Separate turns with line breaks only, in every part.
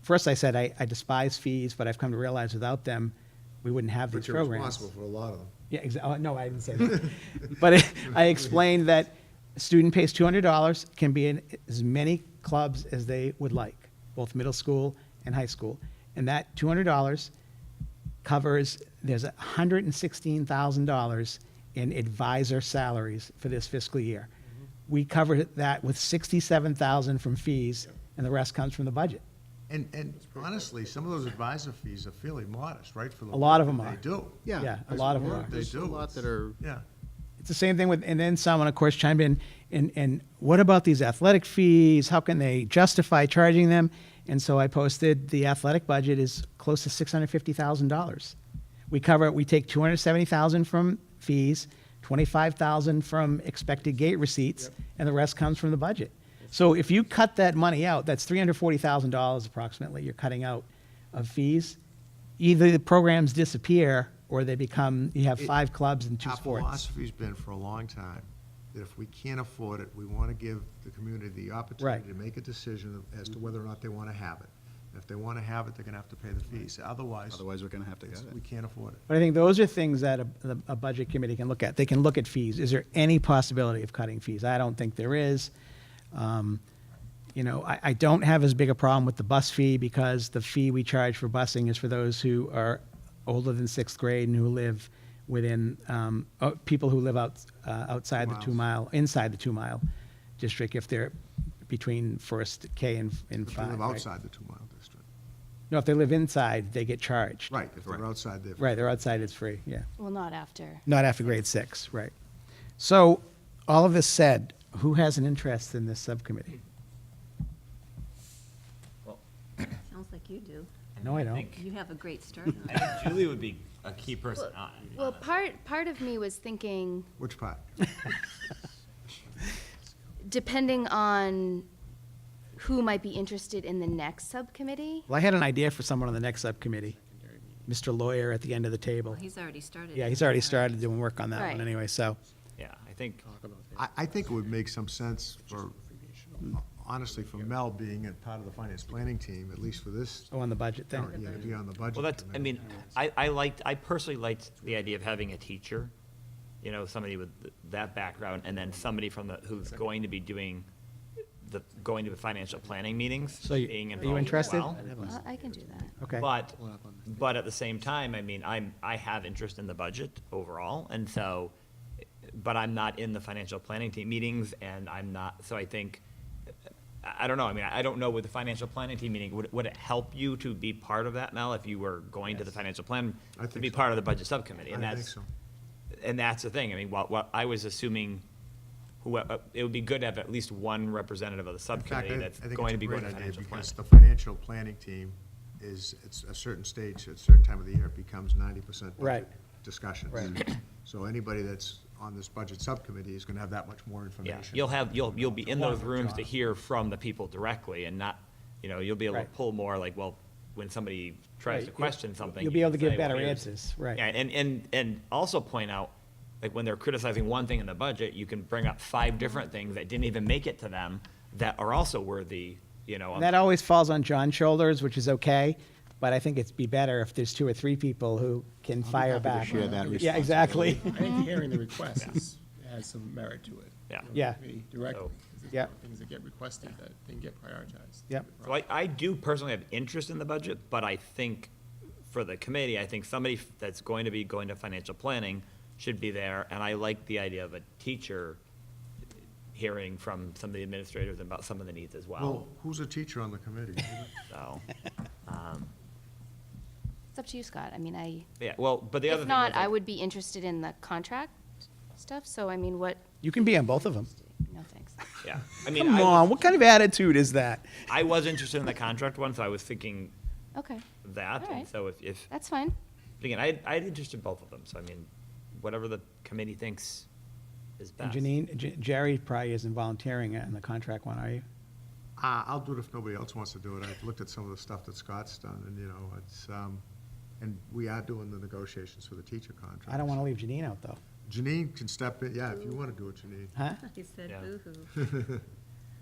first I said I, I despise fees, but I've come to realize without them, we wouldn't have these
But you're
programs.
responsible for a lot of them.
Yeah, exactly. No, I didn't say that. But I- I explained that a student pays two hundred dollars, can be in as many clubs as they would like, both middle school and high school. And that two hundred dollars covers, there's hundred and sixteen thousand dollars in advisor salaries for this fiscal year.
Mm-hmm.
We covered that with sixty-seven thousand from fees, and the rest comes from the budget.
And, and honestly, some of those advisor fees are fairly modest, right? for
A
the
lot of
work
them
that
are.
They do.
Yeah, Yeah, a lot of them
work
are.
They
There's a
do.
lot that are,
Yeah.
It's the same thing with, and then someone, of course, chimed in, and, and what about these athletic fees? How can they justify charging them? And so I posted the athletic budget is close to six hundred fifty thousand dollars. We cover, we take two hundred seventy thousand from fees, twenty-five thousand from expected gate receipts, and the rest comes from the budget. So if you cut that money out, that's three hundred forty thousand dollars approximately you're cutting out of fees. Either the programs disappear or they become, you have
It-
five clubs and two
Our
sports.
philosophy's been for a long time, that if we can't afford it, we want to give the community the opportunity
Right.
to make a decision as to whether or not they want to have it. If they want to have it, they're going to have to pay the fees. Otherwise,
otherwise we're going to have to get
it's- we
it.
can't afford it.
But I think those are things that a, the- a budget committee can look at. They can look at fees. Is there any possibility of cutting fees? I don't think there is. Um, You know, I, I don't have as big a problem with the bus fee because the fee we charge for busing is for those who are older than sixth grade and who live within, um, uh, people who live out, uh, outside the
Miles.
two mile, inside the two mile district if they're between first K and, and
If they
five.
live
right?
outside the two-mile district.
No, if they live inside, they get charged.
Right, if they're outside, they're.
Right, they're outside, it's free, yeah.
Well, not after.
Not after grade six, right. So, all of this said, who has an interest in this subcommittee?
Sounds like you do.
No, I don't.
think-
You have a great start on
I think Julie would be a key person
Well-
on it.
Well, part, part of me was thinking,
Which part?
depending on who might be interested in the next subcommittee,
Well, I had an idea for someone on the next subcommittee, Mr. Lawyer at the end of the table.
Well, He's already started.
Yeah, he's already started doing work on that one
Right.
anyway, so.
Yeah, I think,
I, I think it would make some sense for, honestly, for Mel being a part of the finance planning team, at least for this,
Oh, on the budget thing?
yeah, to be on the budget.
well, that's, I
committee.
mean, I, I liked, I personally liked the idea of having a teacher, you know, somebody with th- that background, and then somebody from the, who's going to be doing the, going to the financial planning meetings,
So you-
being
are you
involved as
interested?
well.
well, I can do that.
Okay.
But, but at the same time, I mean, I'm, I have interest in the budget overall, and so, but I'm not in the financial planning team meetings, and I'm not, so I think, I, I don't know, I mean, I don't know with the financial planning team meeting, would, would it help you to be part of that, Mel, if you were going to the financial plan?
I
To
think
be
so.
part of the budget subcommittee, and
I think
that's,
so.
and that's the thing, I mean, what, what, I was assuming, who, uh, it would be good to have at least one representative of the
In fact,
subcommittee
I-
that's going to be going to
I think it's a great idea, because
financial planning.
the financial planning team is, it's a certain stage, at a certain time of the year, it becomes ninety percent
Right.
budget discussions.
Right.
So anybody that's on this budget subcommittee is gonna have that much more
Yeah,
information.
you'll have, you'll, you'll be in those
Longer
rooms to
job.
hear from the people directly and not, you know, you'll be able to
Right.
pull more like, well, when somebody tries
Right,
to
you-
question something.
you'll be
you
able to
can
give
say, well,
better
here's-
answers, right.
Yeah, and, and, and also point out, like, when they're criticizing one thing in the budget, you can bring up five different things that didn't even make it to them that are also worthy, you know. of-
And that always falls on John's shoulders, which is okay, but I think it'd be better if there's two or three people who can fire
happy to
back.
share that
Yeah, exactly.
I think hearing the request is, has some merit to it.
Yeah.
you know,
Yeah.
me Directly.
So-
'cause there's
Yeah.
more Things that get requested that then get prioritized.
Yep.
So I, I do personally have interest in the budget, but I think for the committee, I think somebody that's going to be going to financial planning should be there, and I like the idea of a teacher hearing from some of the administrators about some of the needs as well,
Well, who's a teacher on the committee?
so.
It's up to you, Scott. I mean, I,
Yeah, well, but the other
if
thing is.
not,
like,
I would be interested in the contract stuff, so I mean, what,
You can be on both of them.
no thanks.
Yeah, I mean,
Come
I,
on,
was-
what kind of attitude is that?
I was interested in the contract one, so I was thinking
Okay,
that, and
Alright.
so if, if,
that's fine.
again, I, I had interest in both of them, so I mean, whatever the committee thinks is
And
best.
Janine, J- Jerry probably isn't volunteering on the contract one, are you?
Uh, I'll do it if nobody else wants to do it. I've looked at some of the stuff that Scott's done, and, you know, it's, um, and we are doing the negotiations for the teacher contract.
I don't want to leave Janine out, though.
Janine can step in, yeah, if you want to do it, Janine.
Huh?
He said
Yeah.
boo-hoo.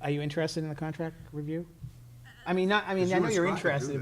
Are you interested in the contract review? I mean, not, I mean,
Because
I
you
know
and
you're
Scott could do
interested,
that.